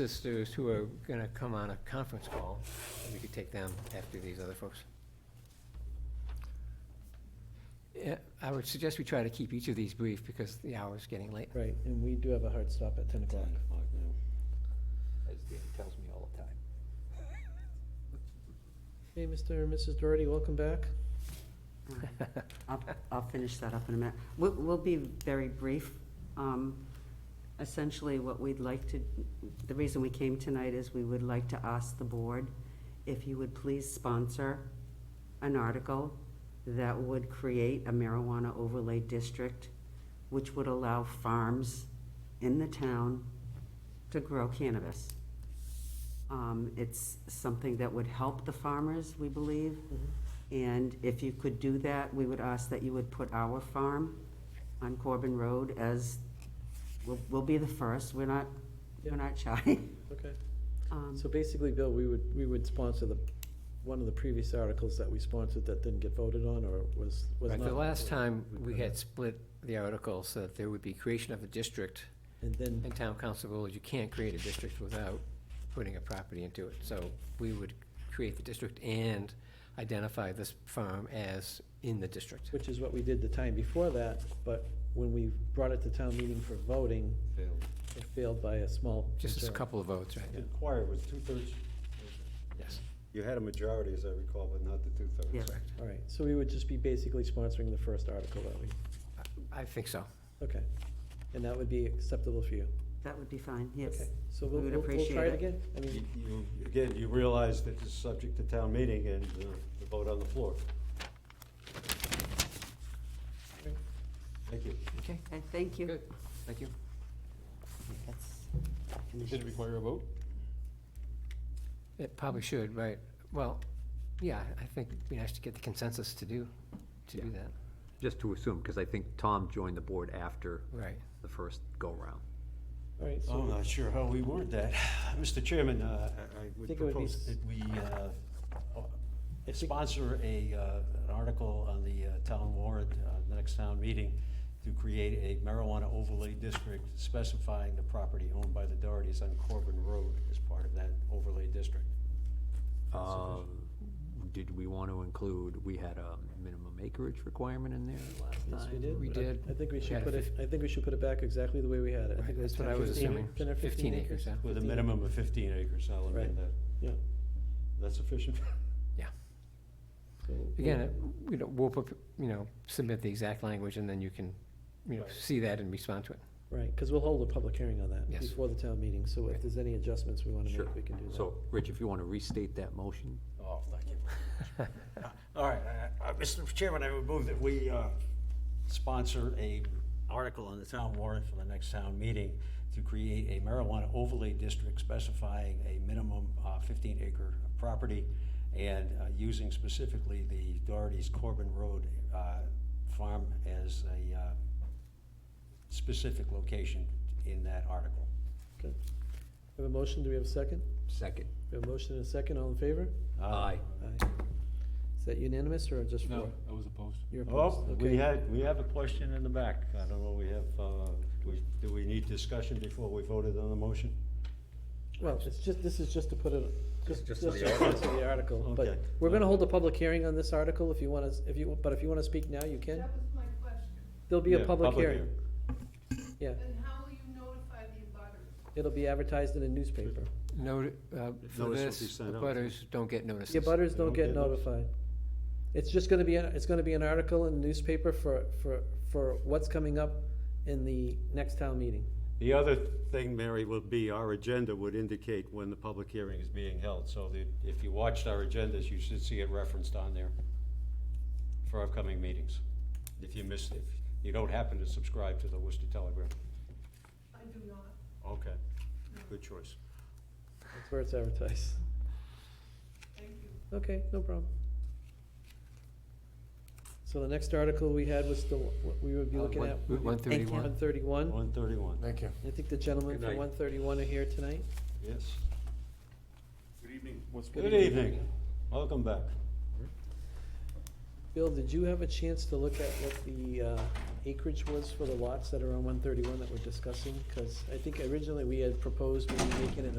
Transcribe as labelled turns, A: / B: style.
A: sisters who are gonna come on a conference call, we could take them after these other folks. Yeah, I would suggest we try to keep each of these brief because the hour's getting late.
B: Right, and we do have a hard stop at ten o'clock.
C: As Dan tells me all the time.
B: Hey, Mr. and Mrs. Doherty, welcome back.
D: I'll, I'll finish that up in a minute. We'll, we'll be very brief. Um, Essentially, what we'd like to, the reason we came tonight is we would like to ask the board if you would please sponsor an article that would create a marijuana overlay district, which would allow farms in the town to grow cannabis. Um, It's something that would help the farmers, we believe.
B: Mm-hmm.
D: And if you could do that, we would ask that you would put our farm on Corbin Road as, we'll, we'll be the first, we're not, we're not shy.
B: Okay,
D: Um,
B: so basically, Bill, we would, we would sponsor the, one of the previous articles that we sponsored that didn't get voted on, or was, was
A: Right,
B: not.
A: the last
B: voted.
A: time, we
B: could
A: had
B: have-
A: split the article so that there would be creation of a district
B: And then,
A: and town council rules, you can't create a district without putting a property into it. So we would create the district and identify this farm as in the district.
B: which is what we did the time before that, but when we brought it to town meeting for voting, it failed by a small.
A: Just a
B: majority.
A: couple of votes, right?
E: The choir was two-thirds.
A: Yes.
E: You had a majority, as I recall, but not the two-thirds.
D: Yeah.
B: All right, so we would just be basically sponsoring the first article that we,
A: I think so.
B: okay. And that would be acceptable for you?
D: That would be fine, yes.
B: Okay, So
D: We
B: we'll,
D: would
B: we'll we'll try
D: appreciate
B: it
D: it.
B: again? I
E: You-
B: mean,
E: you- Again, you realize that this is subject to town meeting and uh, the vote on the floor. Thank you.
A: Okay,
D: Okay, thank you.
A: good. Thank you.
D: That's-
F: Did it require a vote?
A: It probably should, right? Well, yeah, I think it'd be nice to get the consensus to do, to do that.
C: Just to assume, because I think Tom joined the board after
A: Right.
C: the first go-round.
B: all right,
E: I'm
B: so,
E: not sure how we word that. Mr. Chairman, uh, I I would
B: Think it would be
E: propose
B: s-
E: that we uh, uh, sponsor a, uh, an article on the uh, town warrant, uh, the next town meeting, to create a marijuana overlay district specifying the property owned by the Dohertys on Corbin Road as part of that overlay district.
C: Um, Did we want to include, we had a minimum acreage requirement in there last
B: yes,
C: time?
B: we did.
A: We
B: I-
A: did.
B: I think we
A: We
B: should
A: had a
B: put it,
A: fif-
B: I think we should put it back exactly the way we had it. I think
A: Right,
B: it was
A: that's what
B: 10
A: I
B: or
A: was
B: 15
A: assuming.
B: 10 or
A: 15 acres, yeah.
E: With a
B: 15.
E: minimum of fifteen acres, I'll amend
B: Right.
E: that.
B: Yeah.
E: That's sufficient?
B: so we'll-
A: Again, it- you know, we'll, prop- you know, submit the exact language and then you can, you know,
E: Right.
A: see that and respond to it.
B: Right, because we'll hold a public hearing on that
A: Yes.
B: before the town meeting, so if
A: Right.
B: there's any adjustments we want to
C: Sure.
B: make, we can do that.
C: So, Rich, if you want to restate that motion?
E: Oh, thank you. All right, uh, uh, Mr. Chairman, I would move that we uh, sponsor a article on the town warrant for the next town meeting to create a marijuana overlay district specifying a minimum uh, 15 acre property and uh, using specifically the Doherty's Corbin Road uh, farm as a uh, specific location in that article.
B: Okay. We have a motion, do we have a second?
C: Second.
B: We have a motion and a second, all in favor?
E: Uh,
C: Aye.
B: Aye. Is that unanimous or just four?
F: No, I was opposed.
B: You're
E: Oh,
B: opposed,
E: we
B: okay.
E: had, we have a question in the back. I don't know, we have, uh, we- do we need discussion before we voted on the motion?
B: Well, it's just, this is just to put it, just, just
E: Just
B: to
E: on the
B: answer the article, but
E: Okay.
B: we're gonna hold a public hearing on this article if you want to, if you, but if you want to speak now, you can.
G: That was my question.
B: There'll be a
E: Yeah,
B: public hearing,
E: hearing.
B: yeah.
G: And how will you notify the abutters?
B: It'll be advertised in a newspaper.
A: No, uh, for
E: will be
A: this, the
E: sent out.
A: butters don't get notices.
B: The butters
E: They
B: don't
E: don't
B: get
E: get notice?
B: notified. It's just gonna be, a- it's gonna be an article in the newspaper for, for, for what's coming up in the next town meeting.
E: The other thing, Mary, would be our agenda would indicate when the public hearing is being held. So that if you watched our agendas, you should see it referenced on there for upcoming meetings. If you missed, if you don't happen to subscribe to the Worcester Telegram.
G: I do not.
E: Okay, good choice.
B: That's where it's advertised.
G: Thank you.
B: Okay, no problem. So the next article we had was the, we would be
A: Uh,
B: looking
A: one-
B: at.
A: Route one
D: Thank you.
A: thirty-one.
B: One thirty-one.
E: One thirty-one. Thank you.
B: I think the gentlemen
E: Good
B: from
E: night.
B: one thirty-one are here tonight.
E: Yes.
F: What's
E: Good evening. Welcome back.
B: Bill, did you have a chance to look at what the uh, acreage was for the lots that are on one thirty-one that we're discussing? Because I think originally we had proposed maybe making it